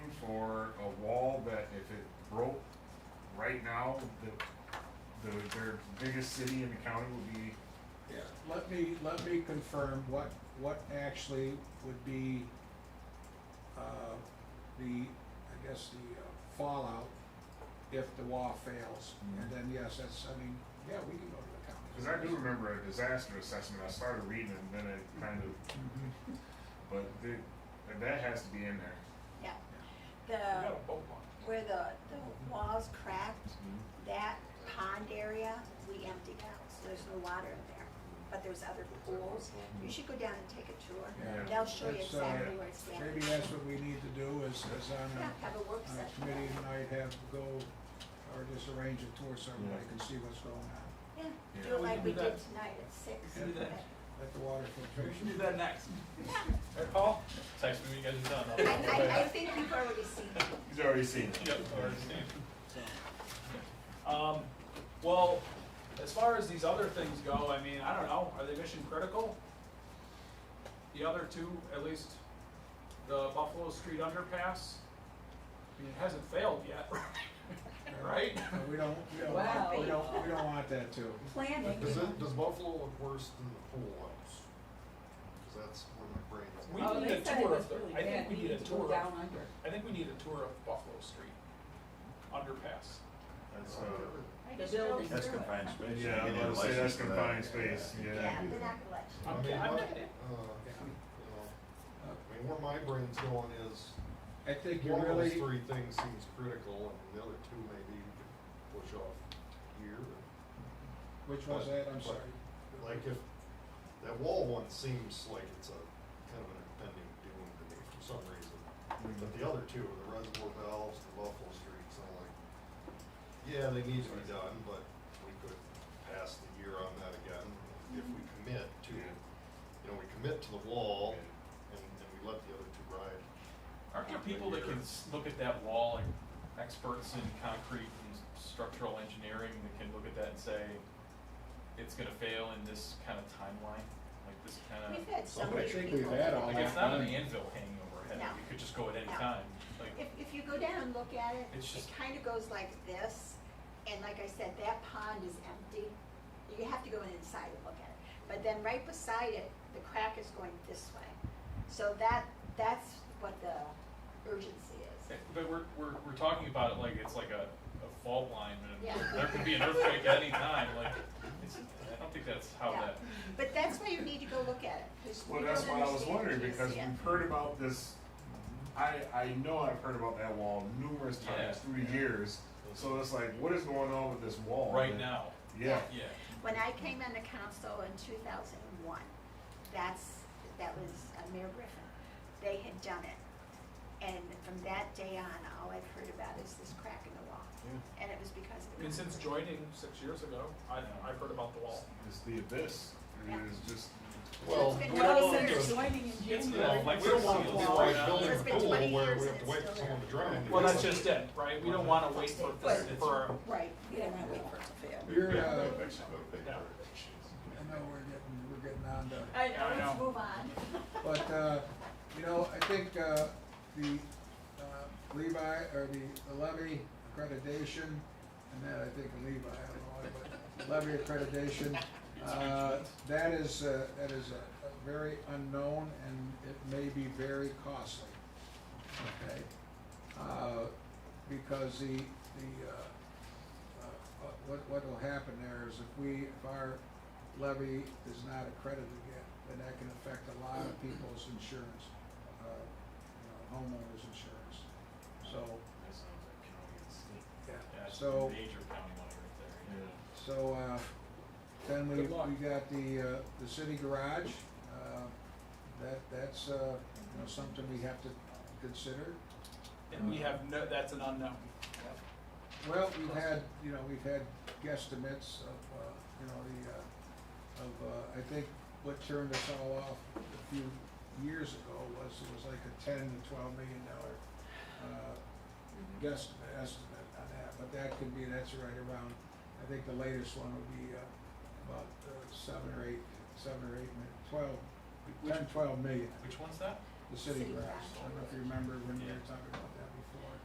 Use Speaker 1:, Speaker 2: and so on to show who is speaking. Speaker 1: a wall that if it broke right now, the, the, their biggest city in the county would be,
Speaker 2: Yeah,
Speaker 3: Let me, let me confirm what, what actually would be, uh, the, I guess, the uh, fallout if the law fails. And then, yes, that's, I mean, yeah, we can go to the county.
Speaker 1: cause I do remember a disaster assessment, I started reading and then it kind of,
Speaker 3: Mhm.
Speaker 1: but the, that has to be in there.
Speaker 4: Yeah,
Speaker 2: we
Speaker 4: the,
Speaker 2: got a boat launch.
Speaker 4: where the, the walls cracked, that pond area, we emptied out, so there's no water in there. But there's other pools, you should go down and take a
Speaker 3: Yeah.
Speaker 4: tour, they'll show you
Speaker 3: That's, uh,
Speaker 4: exactly where it's at.
Speaker 3: Maybe that's what we need to do is, is on
Speaker 4: Yeah,
Speaker 3: a,
Speaker 4: have a work
Speaker 3: on a
Speaker 4: session,
Speaker 3: committee tonight, have go, or just arrange a tour so everybody can see what's going on.
Speaker 4: yeah,
Speaker 1: Yeah.
Speaker 4: do it like we
Speaker 2: We can
Speaker 4: did
Speaker 2: do that.
Speaker 4: tonight at six.
Speaker 3: We can
Speaker 2: do that.
Speaker 3: Let the water
Speaker 2: We should
Speaker 3: filtration.
Speaker 2: do that next.
Speaker 4: Yeah.
Speaker 2: Right, Paul? Text me when you guys are done. I'll-
Speaker 4: I, I, I think you've already seen it.
Speaker 1: He's already seen it.
Speaker 2: Yep, already seen. Um, well, as far as these other things go, I mean, I don't know, are they mission critical? The other two, at least the Buffalo Street underpass, I mean, it hasn't failed yet, right?
Speaker 3: But We don't, we don't, want- we don't, we don't want that to.
Speaker 4: Planning,
Speaker 5: Does it, does Buffalo look worse than the pool house? Cause that's where my brain is.
Speaker 2: We
Speaker 6: Oh,
Speaker 2: need
Speaker 6: they
Speaker 2: a
Speaker 6: said it
Speaker 2: tour
Speaker 6: was
Speaker 2: of the,
Speaker 6: really
Speaker 2: I think
Speaker 6: bad,
Speaker 2: we
Speaker 6: we
Speaker 2: need a
Speaker 6: need to go
Speaker 2: tour
Speaker 6: down
Speaker 2: of,
Speaker 6: under.
Speaker 2: I think we need a tour of Buffalo Street underpass.
Speaker 1: That's, uh,
Speaker 6: The building.
Speaker 7: That's confined space. You
Speaker 1: yeah,
Speaker 7: need
Speaker 1: I'm gonna
Speaker 7: a
Speaker 1: say
Speaker 7: license
Speaker 1: that's
Speaker 7: for that.
Speaker 1: confined space,
Speaker 4: yeah, they're not gonna let you.
Speaker 2: I'm-
Speaker 5: I mean,
Speaker 2: I'm
Speaker 5: what-
Speaker 2: not-
Speaker 5: uh, you know, I mean, where my brain's going is,
Speaker 3: I think you
Speaker 5: one of those
Speaker 3: really,
Speaker 5: three things seems critical, and the other two maybe you could push off here.
Speaker 3: which was that, I'm sorry.
Speaker 5: Like if, that wall one seems like it's a kind of an impending doom to me for some reason. But the other two, the reservoir valves, the Buffalo streets, I'm like, yeah, they need to be done, but we could pass the year on that again if we commit to,
Speaker 1: Yeah.
Speaker 5: you know, we commit to the wall and, and we let the other two ride.
Speaker 2: Aren't there people that can s- look at that wall, like experts in concrete and s- structural engineering, that can look at that and say, it's gonna fail in this kind of timeline, like this kind
Speaker 4: We've
Speaker 2: of,
Speaker 4: had so
Speaker 3: I
Speaker 4: many
Speaker 3: think
Speaker 4: people.
Speaker 3: we've had all
Speaker 2: like
Speaker 3: that.
Speaker 2: it's not an anvil hanging overhead,
Speaker 4: No.
Speaker 2: we could just go at any
Speaker 4: No.
Speaker 2: time, like,
Speaker 4: If, if you go down and look at it,
Speaker 2: It's
Speaker 4: it
Speaker 2: just-
Speaker 4: kind of goes like this, and like I said, that pond is empty. You have to go in inside and look at it, but then right beside it, the crack is going this way. So that, that's what the urgency is.
Speaker 2: eh, but we're, we're, we're talking about it like it's like a, a fault line,
Speaker 4: Yeah.
Speaker 2: and there could be an earthquake at any time, like, it's, I don't think that's how
Speaker 4: Yeah.
Speaker 2: that,
Speaker 4: But that's why you need to go look at it, because we
Speaker 1: Well,
Speaker 4: don't
Speaker 1: that's what I was
Speaker 4: understand
Speaker 1: wondering,
Speaker 4: until you
Speaker 1: because
Speaker 4: see it.
Speaker 1: we've heard about this, I, I know I've heard about that wall numerous
Speaker 2: Yeah.
Speaker 1: times through the years. So it's like, what is going on with this wall?
Speaker 2: right
Speaker 1: that-
Speaker 2: now,
Speaker 1: Yeah,
Speaker 2: yeah.
Speaker 4: When I came on the council in two thousand and one, that's, that was uh, Mayor Griffin, they had done it. And from that day on, all I've heard about is this crack in the wall. And it was because of.
Speaker 2: I mean, since joining six years ago, I've, I've heard about the wall.
Speaker 1: it's the abyss, it
Speaker 4: Yeah.
Speaker 1: is just,
Speaker 5: Well,
Speaker 4: been
Speaker 5: we
Speaker 4: well
Speaker 5: don't
Speaker 4: since
Speaker 5: want to,
Speaker 4: it's
Speaker 5: do
Speaker 2: It's uh,
Speaker 6: Oh, Joining in
Speaker 5: it-
Speaker 6: January.
Speaker 2: like-
Speaker 5: we don't want to be like building
Speaker 4: It's
Speaker 5: a
Speaker 4: been 20
Speaker 5: pool where
Speaker 4: years
Speaker 5: we
Speaker 4: and
Speaker 5: have to
Speaker 4: it's
Speaker 5: wait
Speaker 4: still
Speaker 5: for someone to drown.
Speaker 2: Well, that's just it, right? We don't wanna wait for, this-
Speaker 4: Right.
Speaker 2: for, our-
Speaker 4: Right,
Speaker 6: We don't want to wait for it to fail.
Speaker 3: You're, uh, I
Speaker 2: yeah.
Speaker 3: know we're getting, we're getting on to,
Speaker 4: I
Speaker 2: Yeah, I
Speaker 4: know, let's
Speaker 2: know.
Speaker 4: move on.
Speaker 3: but, uh, you know, I think, uh, the, uh, Levi, or the levy accreditation, and that I think Levi, I don't know, why, but levy accreditation, uh, that is, uh, that is a, a very unknown and it may be very costly, okay? Uh, because the, the, uh, uh, what, what will happen there is if we, if our levy is not accredited yet, then that can affect a lot of people's insurance, uh, you know, homeowners insurance. So,
Speaker 1: that sounds like county and state.
Speaker 2: Yeah,
Speaker 3: yeah,
Speaker 2: it's
Speaker 3: so.
Speaker 2: major county money right there.
Speaker 1: Yeah.
Speaker 3: So, uh, then we,
Speaker 2: Good luck.
Speaker 3: we got the, uh, the city garage, uh, that, that's, uh, you know, something we have to consider.
Speaker 2: And we have no, that's an unknown.
Speaker 3: Well, we've had, you know, we've had guesstimates of, uh, you know, the, uh, of, uh, I think what turned us all off a few years ago was, it was like a ten to twelve million dollar, uh, guesstimate, estimate on that, but that could be, that's right around, I think the latest one would be, uh, about uh, seven or eight, seven or eight, mi- twelve, ten, twelve million,
Speaker 2: Which one's that?
Speaker 3: the city
Speaker 4: City
Speaker 3: grass. I don't know if you remember when we
Speaker 2: Yeah.
Speaker 3: were talking about